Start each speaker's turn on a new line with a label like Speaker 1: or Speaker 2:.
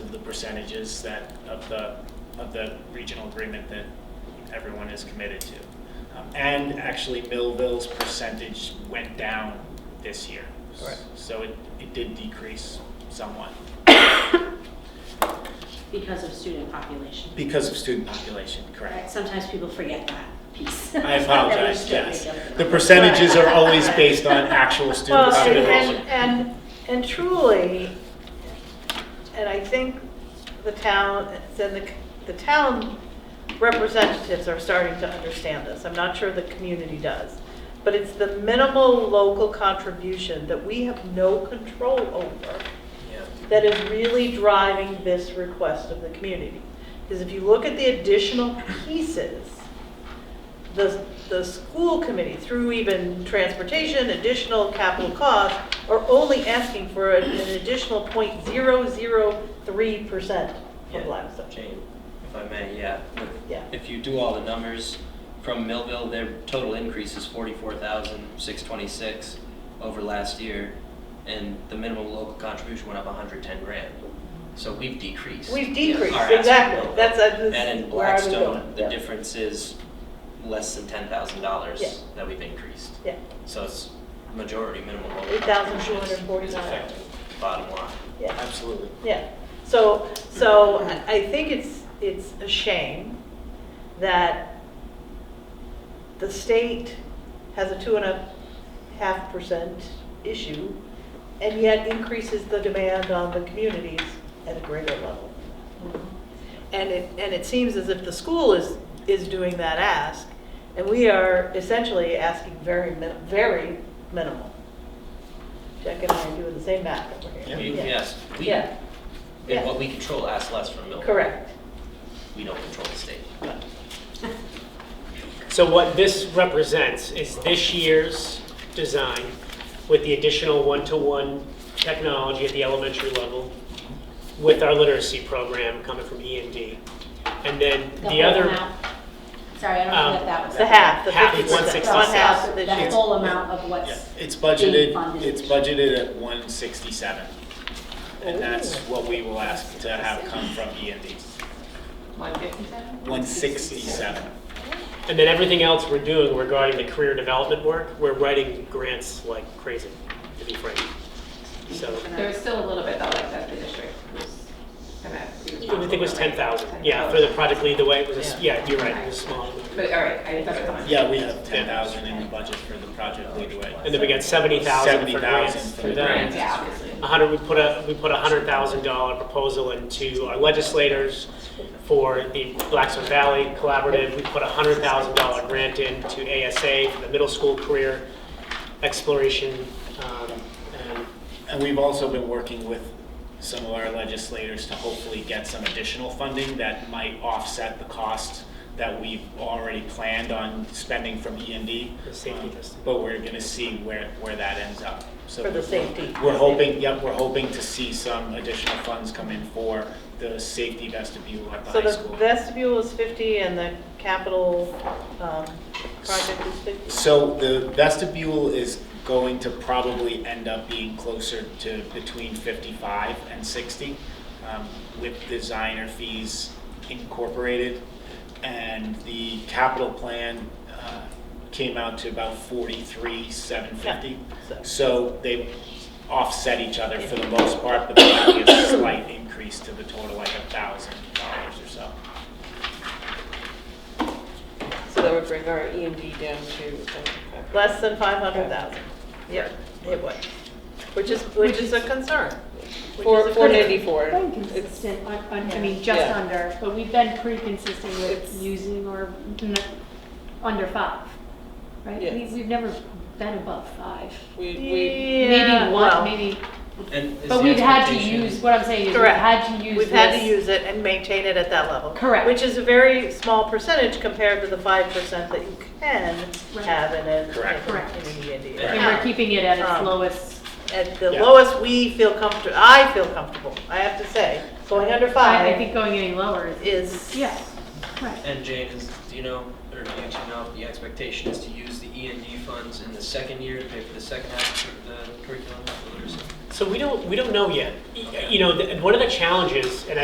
Speaker 1: percentages that, of the, of the regional agreement that everyone is committed to. Um, And actually Millville's percentage went down this year.
Speaker 2: Right.
Speaker 1: So it, it did decrease somewhat
Speaker 3: because of student population.
Speaker 1: because of student population, correct?
Speaker 3: Sometimes people forget that piece.
Speaker 1: I apologize, yes. The
Speaker 3: percent.
Speaker 1: percentages are always based on actual student
Speaker 2: Well, and-
Speaker 1: population.
Speaker 2: and, and, and truly, and I think the town, then the, the town representatives are starting to understand this. I'm not sure the community does. But it's the minimal local contribution that we have no control over
Speaker 1: Yeah.
Speaker 2: that is really driving this request of the community. Because if you look at the additional pieces, the, the school committee, through even transportation, additional capital costs, are only asking for an additional 0.003%
Speaker 4: Yeah,
Speaker 2: of limestone.
Speaker 4: Jane, if I may, yeah. If-
Speaker 2: Yeah.
Speaker 4: If you do all the numbers from Millville, their total increase is forty-four thousand, six twenty-six over last year, and the minimum local contribution went up hundred ten grand. So we've decreased.
Speaker 2: We've decreased,
Speaker 4: Our absolute
Speaker 2: exactly.
Speaker 4: level.
Speaker 2: That's- that's
Speaker 4: And in
Speaker 2: where I was
Speaker 4: Blackstone,
Speaker 2: going,
Speaker 4: the
Speaker 2: yeah.
Speaker 4: difference is less than ten thousand dollars
Speaker 2: Yeah.
Speaker 4: that we've increased.
Speaker 2: Yeah,
Speaker 4: So it's majority minimum local contribution is- is
Speaker 2: $8,249.
Speaker 4: affecting bottom line.
Speaker 2: yeah.
Speaker 1: Absolutely.
Speaker 2: Yeah, so, so I- I think it's, it's a shame that the state has a two and a half percent issue and yet increases the demand on the communities at a greater level. And it, and it seems as if the school is, is doing that ask and we are essentially asking very, min- very minimal. Jack and I are doing the same math over here.
Speaker 4: We, yes, we,
Speaker 2: Yeah.
Speaker 4: And
Speaker 2: Yeah.
Speaker 4: what we control, ask less from Millville.
Speaker 2: Correct.
Speaker 4: We don't control the state.
Speaker 5: So what this represents is this year's design with the additional one-to-one technology at the elementary level with our literacy program coming from E and D. And then the other.
Speaker 3: Sorry, I
Speaker 5: Um,
Speaker 3: don't know what that was.
Speaker 2: The half, the
Speaker 5: Half,
Speaker 2: fifty
Speaker 5: one
Speaker 2: percent,
Speaker 5: sixty
Speaker 2: one half
Speaker 3: The
Speaker 2: this
Speaker 3: the
Speaker 2: year.
Speaker 3: whole amount of
Speaker 1: Yeah,
Speaker 3: what's,
Speaker 1: It's budgeted,
Speaker 3: Being funded.
Speaker 1: it's budgeted at 167. And that's
Speaker 5: Oh.
Speaker 1: what we will ask to have come from E and D. 167.
Speaker 5: And then everything else we're doing regarding the career development work, we're writing grants like crazy, to be frank. So,
Speaker 6: There was still a little bit though, like that the district was gonna. be
Speaker 5: I think it was
Speaker 6: responsible, right?
Speaker 5: 10,000, yeah, for the project lead the way, it was, a s- yeah, you're right, it was small.
Speaker 6: But, all right, I that's what I thought.
Speaker 1: Yeah, we have 10,000 in the budget for the project lead away.
Speaker 5: And then we got 70,000 for
Speaker 1: 70,000
Speaker 5: grants
Speaker 1: for
Speaker 5: through
Speaker 1: the
Speaker 5: that.
Speaker 6: Right, yeah, obviously.
Speaker 5: A hundred, we put a, we put a hundred thousand dollar proposal into our legislators for the Blackstone Valley Collaborative. We put a hundred thousand dollar grant in to ASA for the middle school career exploration. um, and
Speaker 1: And we've also been working with some of our legislators to hopefully get some additional funding that might offset the cost that we've already planned on spending from E and D.
Speaker 5: The safety testing.
Speaker 1: But we're gonna see where, where that ends up. So
Speaker 2: For the safety.
Speaker 1: We're hoping, yep, we're hoping to see some additional funds come in for the safety vestibule at the
Speaker 2: So
Speaker 1: high
Speaker 2: the
Speaker 1: school.
Speaker 2: vestibule is 50 and the capital um, project is 50?
Speaker 1: So the vestibule is going to probably end up being closer to between 55 and 60 um, with designer fees incorporated. And the capital plan uh, came out to about 43, 750.
Speaker 2: Yeah, so-
Speaker 1: So they offset each other for the most part, but there might be a slight increase to the total, like $1,000 or so.
Speaker 7: So that would bring our E and D down to.
Speaker 2: Less than 500,000. Yep, it would. Which is, which is a concern. Which is
Speaker 7: Four,
Speaker 2: a
Speaker 7: four
Speaker 2: concern.
Speaker 7: ninety-four.
Speaker 8: Been consistent, on- on- I mean, just
Speaker 7: Yeah.
Speaker 8: under, but we've been pretty consistent with
Speaker 7: It's-
Speaker 8: using or n- under five, right?
Speaker 7: Yes.
Speaker 8: We- We've never been above five.
Speaker 7: We, we,
Speaker 2: Yeah,
Speaker 8: Maybe
Speaker 2: well,
Speaker 8: one, maybe,
Speaker 4: And is
Speaker 8: but
Speaker 4: the
Speaker 8: we've had to
Speaker 4: expectation-
Speaker 8: use, what I'm saying is we've
Speaker 2: Correct.
Speaker 8: had to use
Speaker 2: We've had to
Speaker 8: this.
Speaker 2: use it and maintain it at that level.
Speaker 8: Correct.
Speaker 2: Which is a very small percentage compared to the 5% that you can
Speaker 8: Right.
Speaker 2: have in a.
Speaker 1: Correct.
Speaker 8: Correct.
Speaker 2: in an E&D
Speaker 8: And we're
Speaker 2: account.
Speaker 8: keeping it at its
Speaker 2: Um,
Speaker 8: lowest.
Speaker 2: at the
Speaker 5: Yeah.
Speaker 2: lowest we feel comfortable, I feel comfortable, I have to say, going under
Speaker 8: I I think
Speaker 2: five
Speaker 8: going any lower is,
Speaker 2: is.
Speaker 8: yeah, right.
Speaker 4: And Jane, is, do you know, or do you two know, the expectation is to use the E and D funds in the second year to pay for the second half of the curriculum for literacy?
Speaker 5: So we don't, we don't know yet. Y- You know, th- one of the challenges, and